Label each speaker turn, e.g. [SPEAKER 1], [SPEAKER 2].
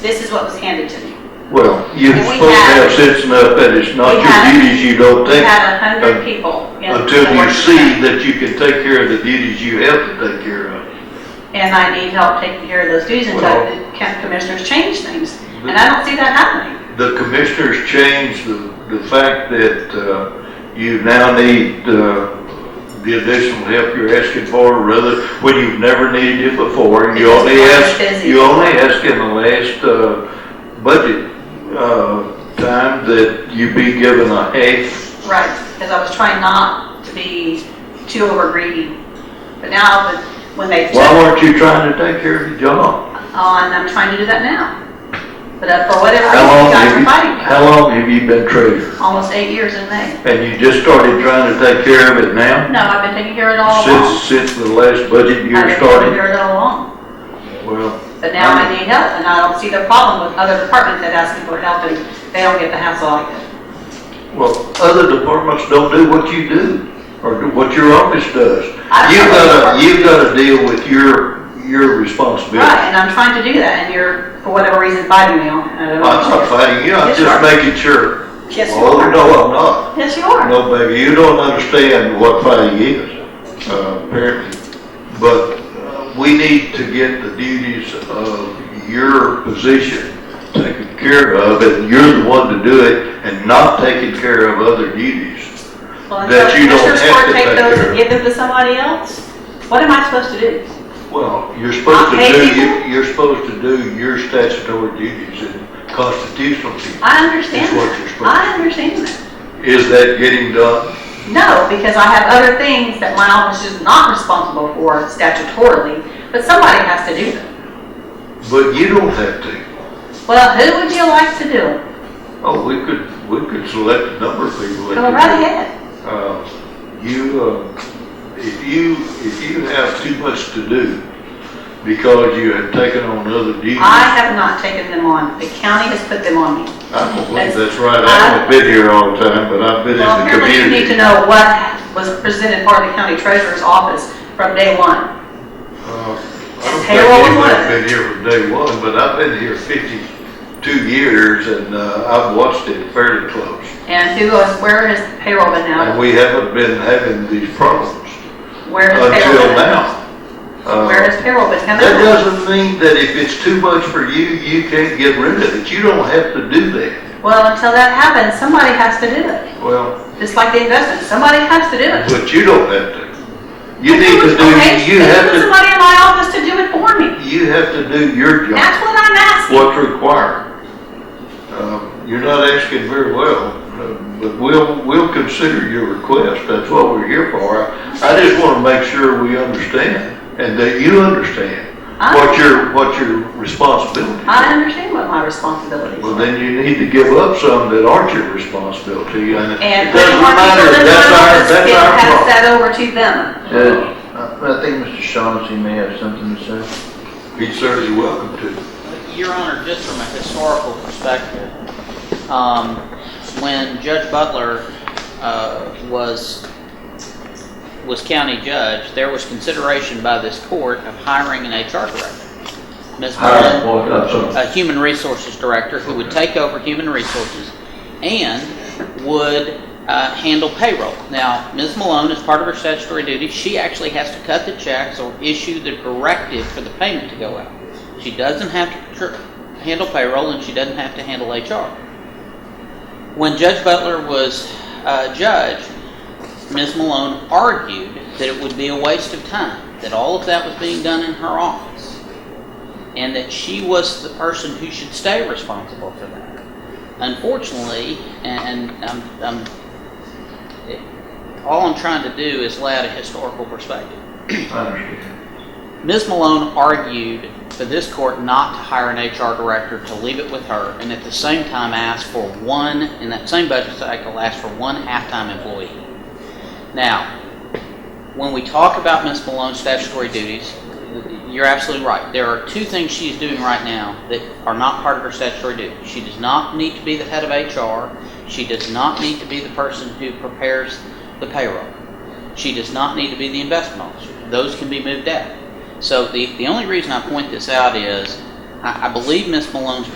[SPEAKER 1] This is what was handed to me.
[SPEAKER 2] Well, you're
[SPEAKER 1] And we
[SPEAKER 2] supposed to have
[SPEAKER 1] have-
[SPEAKER 2] sense enough that it's not
[SPEAKER 1] we
[SPEAKER 2] your
[SPEAKER 1] have-
[SPEAKER 2] duties you don't
[SPEAKER 1] We
[SPEAKER 2] take
[SPEAKER 1] had a
[SPEAKER 2] uh,
[SPEAKER 1] hundred people. in
[SPEAKER 2] until
[SPEAKER 1] the
[SPEAKER 2] you
[SPEAKER 1] work
[SPEAKER 2] see
[SPEAKER 1] session,
[SPEAKER 2] that you can take care of the duties you have to take care of.
[SPEAKER 1] And I need help taking care of those duties until
[SPEAKER 2] Well-
[SPEAKER 1] the county commissioners change things. And I don't see that happening.
[SPEAKER 2] The commissioners changed the, the fact that, uh, you now need, uh, the additional help you're asking for rather, when you've never needed it before. You
[SPEAKER 1] Because
[SPEAKER 2] only
[SPEAKER 1] we're
[SPEAKER 2] asked,
[SPEAKER 1] busy.
[SPEAKER 2] you only asked in the last, uh, budget, uh, time that you be given a half
[SPEAKER 1] Right, because I was trying not to be too over greedy. But now, that- when they took
[SPEAKER 2] Why weren't you trying to take care of your job?
[SPEAKER 1] on, I'm trying to do that now. But uh, for whatever
[SPEAKER 2] How
[SPEAKER 1] reason, you
[SPEAKER 2] long
[SPEAKER 1] guys
[SPEAKER 2] have
[SPEAKER 1] are
[SPEAKER 2] you,
[SPEAKER 1] fighting me.
[SPEAKER 2] how long have you been treasurer?
[SPEAKER 1] Almost eight years in May.
[SPEAKER 2] And you just started trying to take care of it now?
[SPEAKER 1] No, I've been taking care of it all along.
[SPEAKER 2] Since, since the last budget
[SPEAKER 1] I've
[SPEAKER 2] year
[SPEAKER 1] been taking
[SPEAKER 2] started?
[SPEAKER 1] care of it all along.
[SPEAKER 2] Well,
[SPEAKER 1] But now I need help, and I don't see the problem with other departments that ask me for help, and they don't get the hassle I get.
[SPEAKER 2] well, other departments don't do what you do, or do what your office does.
[SPEAKER 1] I-
[SPEAKER 2] You've gotta, you've gotta deal with your, your responsibility.
[SPEAKER 1] Right, and I'm trying to do that, and you're, for whatever reason, biting me on it. I
[SPEAKER 2] I'm
[SPEAKER 1] don't
[SPEAKER 2] not fighting you, I'm
[SPEAKER 1] Yes, you are.
[SPEAKER 2] just making sure.
[SPEAKER 1] know. Yes, you
[SPEAKER 2] Oh,
[SPEAKER 1] are.
[SPEAKER 2] no, I'm not.
[SPEAKER 1] Yes, you are.
[SPEAKER 2] No, baby, you don't understand what fighting is, uh, apparently. But uh, we need to get the duties of your position taken care of, and you're the one to do it, and not taking care of other duties.
[SPEAKER 1] Well, and
[SPEAKER 2] that
[SPEAKER 1] so
[SPEAKER 2] you don't
[SPEAKER 1] Commissioners
[SPEAKER 2] have
[SPEAKER 1] Court
[SPEAKER 2] to
[SPEAKER 1] take
[SPEAKER 2] take
[SPEAKER 1] those
[SPEAKER 2] care
[SPEAKER 1] and
[SPEAKER 2] of.
[SPEAKER 1] give them to somebody else? What am I supposed to do?
[SPEAKER 2] Well, you're supposed to
[SPEAKER 1] Not pay
[SPEAKER 2] do,
[SPEAKER 1] people?
[SPEAKER 2] you- you're supposed to do your statutory duties and constitutional duties.
[SPEAKER 1] I understand
[SPEAKER 2] That's what you're
[SPEAKER 1] that.
[SPEAKER 2] supposed
[SPEAKER 1] I understand that.
[SPEAKER 2] Is that getting done?
[SPEAKER 1] No, because I have other things that my office is not responsible for statutorily, but somebody has to do them.
[SPEAKER 2] But you don't have to.
[SPEAKER 1] Well, who would you like to do it?
[SPEAKER 2] Oh, we could, we could select a number of people. that
[SPEAKER 1] Go
[SPEAKER 2] could do
[SPEAKER 1] right
[SPEAKER 2] it.
[SPEAKER 1] ahead.
[SPEAKER 2] Uh, you, uh, if you, if you have too much to do because you have taken on other duties,
[SPEAKER 1] I
[SPEAKER 2] I
[SPEAKER 1] have not taken them on. The county has put them on me.
[SPEAKER 2] don't believe that's right. I haven't been here all the time, but I've been in
[SPEAKER 1] Well,
[SPEAKER 2] the
[SPEAKER 1] apparently you need to
[SPEAKER 2] community.
[SPEAKER 1] know what was presented by the county treasurer's office from day one.
[SPEAKER 2] Uh, I don't think
[SPEAKER 1] Payroll and
[SPEAKER 2] anyone's
[SPEAKER 1] what?
[SPEAKER 2] been here from day one, but I've been here fifty-two years and, uh, I've watched it fairly close.
[SPEAKER 1] And who goes, where is the payroll been
[SPEAKER 2] And
[SPEAKER 1] now?
[SPEAKER 2] we haven't been having these problems
[SPEAKER 1] Where is payroll
[SPEAKER 2] until
[SPEAKER 1] been?
[SPEAKER 2] now. Uh,
[SPEAKER 1] Where is payroll been coming
[SPEAKER 2] That
[SPEAKER 1] out?
[SPEAKER 2] doesn't mean that if it's too much for you, you can't get rid of it. You don't have to do that.
[SPEAKER 1] Well, until that happens, somebody has to do it.
[SPEAKER 2] Well,
[SPEAKER 1] Just like the investment, somebody has to do it.
[SPEAKER 2] but you don't have to. You
[SPEAKER 1] But
[SPEAKER 2] need
[SPEAKER 1] who
[SPEAKER 2] to
[SPEAKER 1] was- okay,
[SPEAKER 2] do, you
[SPEAKER 1] then
[SPEAKER 2] have
[SPEAKER 1] Put
[SPEAKER 2] to,
[SPEAKER 1] somebody in my office to do it for me.
[SPEAKER 2] you have to do your job,
[SPEAKER 1] That's what I'm asking.
[SPEAKER 2] what's required. Um, You're not asking very well, uh, but we'll, we'll consider your request. That's what we're here for. I just want to make sure we understand and that you understand
[SPEAKER 1] I-
[SPEAKER 2] what your, what your responsibilities
[SPEAKER 1] I
[SPEAKER 2] are.
[SPEAKER 1] understand what my responsibilities
[SPEAKER 2] Well,
[SPEAKER 1] are.
[SPEAKER 2] then you need to give up some that aren't your responsibility, and
[SPEAKER 1] And
[SPEAKER 2] it
[SPEAKER 1] putting
[SPEAKER 2] doesn't
[SPEAKER 1] more
[SPEAKER 2] matter,
[SPEAKER 1] people in
[SPEAKER 2] that's
[SPEAKER 1] my
[SPEAKER 2] our,
[SPEAKER 1] office
[SPEAKER 2] that's
[SPEAKER 1] can pass
[SPEAKER 2] our
[SPEAKER 1] that over to them.
[SPEAKER 2] problem.
[SPEAKER 3] Uh, I think Mr. Shaughnessy may have something to say.
[SPEAKER 2] Be certainly welcome to.
[SPEAKER 4] Your Honor, just from a historical perspective, um, when Judge Butler, uh, was, was county judge, there was consideration by this court of hiring an HR director. Ms.
[SPEAKER 2] Hiring
[SPEAKER 4] Mullen-
[SPEAKER 2] what? I'm sorry.
[SPEAKER 4] a human resources director who would take over human resources and would uh, handle payroll. Now, Ms. Malone, as part of her statutory duty, she actually has to cut the checks or issue the directive for the payment to go out. She doesn't have to tr- handle payroll and she doesn't have to handle HR. When Judge Butler was uh, judge, Ms. Malone argued that it would be a waste of time, that all of that was being done in her office and that she was the person who should stay responsible for that. Unfortunately, and I'm, I'm, it, all I'm trying to do is lay out a historical perspective.
[SPEAKER 2] I understand.
[SPEAKER 4] Ms. Malone argued for this court not to hire an HR director, to leave it with her, and at the same time asked for one, in that same budget cycle, asked for one half-time employee. Now, when we talk about Ms. Malone's statutory duties, you're absolutely right. There are two things she's doing right now that are not part of her statutory duties. She does not need to be the head of HR. She does not need to be the person who prepares the payroll. She does not need to be the investment officer. Those can be moved out. So the, the only reason I point this out is, I, I believe Ms. Malone's